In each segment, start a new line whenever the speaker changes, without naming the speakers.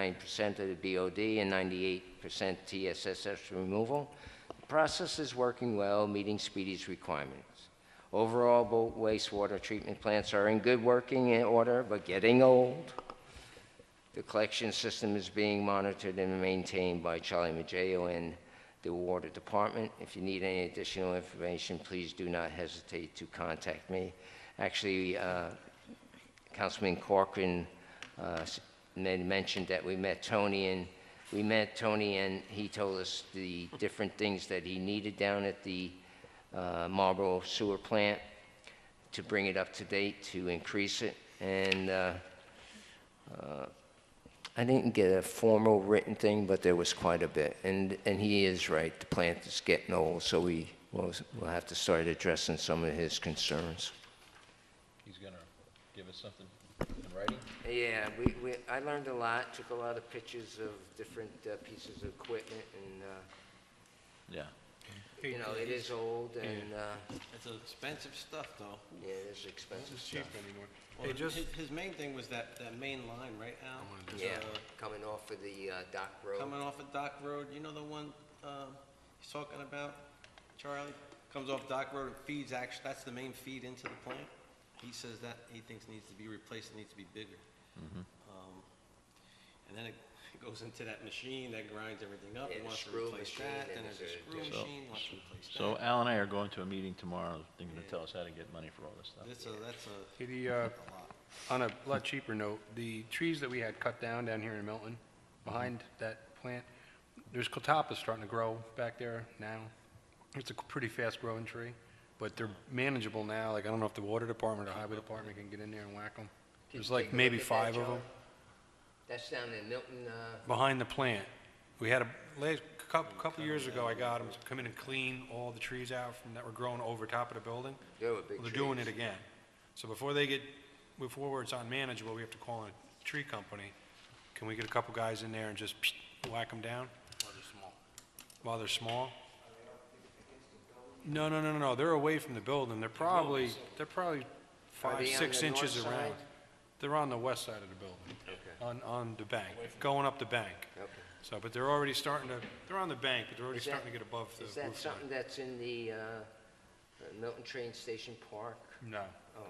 99% of the BOD and 98% TSSS removal. The Process is working well, meeting Speedy's requirements. Overall, both wastewater treatment plants are in good working order, but getting old. The collection system is being monitored and maintained by Charlie Maggio and the Water Department. If you need any additional information, please do not hesitate to contact me. Actually, uh, Councilman Corcoran uh, s- men- mentioned that we met Tony, and we met Tony, and he told us the different things that he needed down at the uh, Marlboro Sewer Plant to bring it up to date, to increase it. And uh, uh, I didn't get a formal written thing, but there was quite a bit. And, and he is right, the plant is getting old, so we will we'll have to start addressing some of his concerns.
He's gonna give us something in writing?
Yeah, we, we, I learned a lot, took a lot of pictures of different uh, pieces of equipment and, uh,
Yeah.
you know, it is old and, uh,
It's expensive stuff, though.
yeah, it is expensive stuff.
Well,
just-
his, his main thing was that, that main line, right, Al?
Yeah,
Uh,
coming off of the uh, dock road.
Coming off of Dock Road, you know the one, uh, he's talking about, Charlie? Comes off Dock Road and feeds, actually, that's the main feed into the plant. He says that he thinks needs to be replaced, it needs to be bigger.
Mm-hmm.
Um, And then it goes into that machine that grinds everything up,
Yeah,
he
the
wants to
screw
replace
machine,
that,
and
then
there's
there's a
a-
screw
yeah.
So-
machine, wants to replace that.
So Al and I are going to a meeting tomorrow. They're gonna tell us how to get money for all this stuff.
That's a, that's a,
Hey, The, uh,
a lot.
on a lot cheaper note, the trees that we had cut down down here in Milton, behind that plant, there's catalpa starting to grow back there now. It's a pretty fast-growing tree, but they're manageable now, like, I don't know if the water department or highway department can get in there and whack them.
Did
There's
you take
like
a
maybe
look at
five
that,
of them.
Charlie? That's down in Milton, uh,
Behind the plant, we had a, last, couple, couple years ago, I got them to come in and clean all the trees out from, that were growing over top of the building.
there were big
Well, they're doing it
trees.
again. So before they get, before it's unmanageable, we have to call in a tree company. Can we get a couple guys in there and just whack them down? While they're small. While they're small? No, no, no, no, no, they're away from the building. They're probably, they're probably
they
five,
on
six
the north
inches around.
side?
They're on the west side of the building, on, on the bank, going up the bank.
Okay.
So, but they're already starting to, they're on the bank, but they're already
Is that-
starting to get above the
Is that
roof line.
something that's in the uh, uh, Milton Train Station Park? Oh,
No,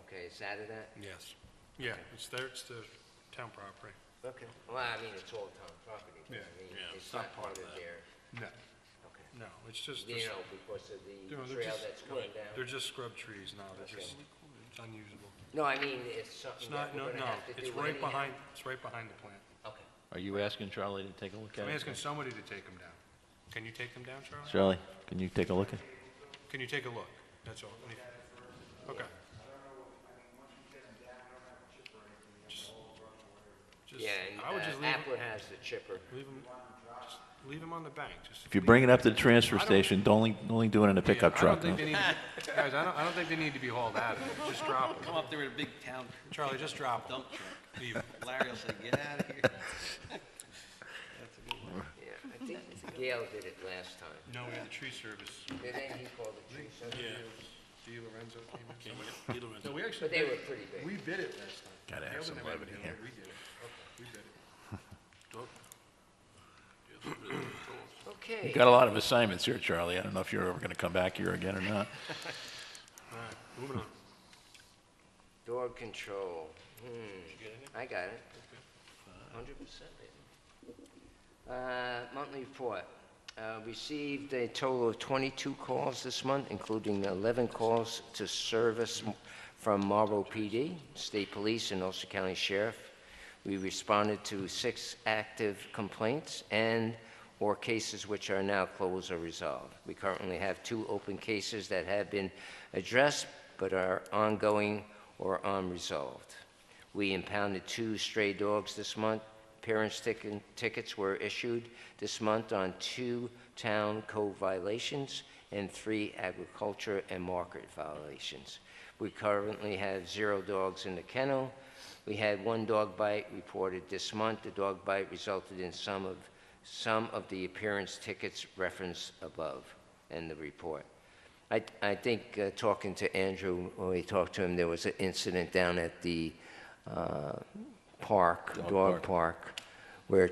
Okay, is that of that?
yes. Yeah, it's there, it's the town property.
Okay. Well, I mean, it's all town property, but I
Yeah.
mean,
Yeah,
it's not part of their,
No,
okay.
no, it's just,
You know, because of the
No, they're
trail
just-
that's coming
they're
down.
just scrub trees now, they're
Okay.
just, it's unusable.
No, I mean, it's
It's
something that
not, no,
we're gonna
no,
have to do uh,
it's
anyhow.
right behind, it's right behind the plant.
Okay.
Are you asking Charlie to take a look at it?
I'm asking somebody to take them down. Can you take them down, Charlie?
Charlie, can you take a look at?
Can you take a look? That's all. Any- Okay. Just- just-
Yeah, and
I would just
uh,
leave 'em-
Appler has the chipper.
Leave them, just leave them on the bank, just.
If you bring it up to the transfer station, don't only, only do it in a pickup
Yeah, I
truck.
don't think
no?
they need to- Guys, I don't, I don't think they need to be hauled out of it, just drop them.
Come up there with a big town
Charlie, just drop them.
dump truck. Larry will say, get out of here. That's a good one.
Yeah, I think Gail did it last time.
No, we had the tree service.
Did he call the tree service?
D. Lorenzo came in. No, we actually.
But they
bid
were
it.
pretty big.
We bid it last time.
Gotta have
Gail
some
didn't
levity
it.
here.
We did it. We bid it.
Okay.
You Got a lot of assignments here, Charlie. I don't know if you're ever gonna come back here again or not.
All right, moving on.
Door control. Hmm, I got it. Hundred percent. Uh, monthly report. Uh, received a total of twenty-two calls this month, including eleven calls to service m- from Marlboro PD, State Police, and Ulster County Sheriff. We responded to six active complaints and/or cases which are now closed or resolved. We currently have two open cases that have been addressed but are ongoing or unresolved. We impounded two stray dogs this month. Parents' tick- tickets were issued this month on two town code violations and three agriculture and market violations. We currently have zero dogs in the kennel. We had one dog bite reported this month. The dog bite resulted in some of, some of the appearance tickets referenced above in the report. I, I think uh, talking to Andrew, when we talked to him, there was an incident down at the uh, park, dog park, where